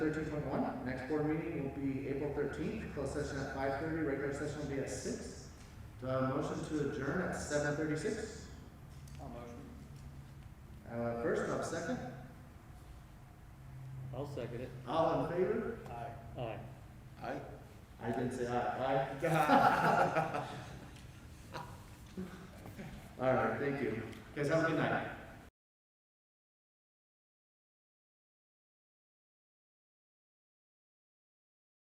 thirteen twenty-one. Next board meeting will be April thirteenth, closed session at five thirty, regular session will be at six. Do I have a motion to adjourn at seven thirty-six? I'll motion. Uh, first, I'll second. I'll second it. All in favor? Aye. Aye. Aye. I didn't say aye. Aye. All right, thank you. Guys, have a good night.